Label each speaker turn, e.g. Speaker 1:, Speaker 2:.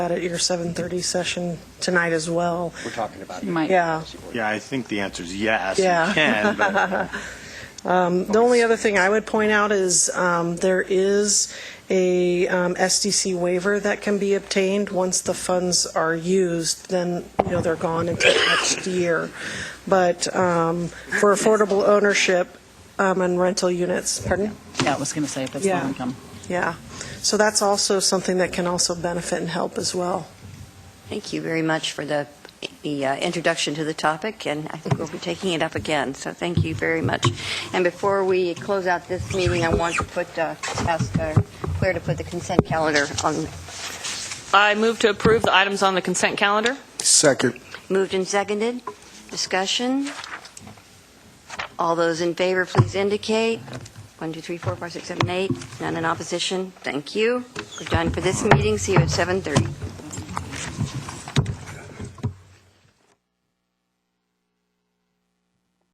Speaker 1: that at your 7:30 session tonight as well.
Speaker 2: We're talking about.
Speaker 3: Might.
Speaker 1: Yeah.
Speaker 4: Yeah, I think the answer is yes, you
Speaker 1: Yeah.
Speaker 4: can, but
Speaker 1: The only other thing I would point out is um, there is a um, SDC waiver that can be obtained. Once the funds are used, then, you know, they're gone until next year. But um, for affordable ownership um, and rental units, pardon?
Speaker 3: Yeah, I was going to say, if that's
Speaker 1: Yeah.
Speaker 3: low income.
Speaker 1: Yeah. So that's also something that can also benefit and help as well.
Speaker 5: Thank you very much for the, the uh, introduction to the topic, and I think we'll be taking it up again, so thank you very much. And before we close out this meeting, I want to put, uh, ask uh, Claire to put the consent calendar on,
Speaker 6: I move to approve the items on the consent calendar.
Speaker 2: Second.
Speaker 5: moved and seconded, discussion. All those in favor, please indicate. One, two, three, four, five, six, seven, eight. None in opposition, thank you. We're done for this meeting, see you at 7:30.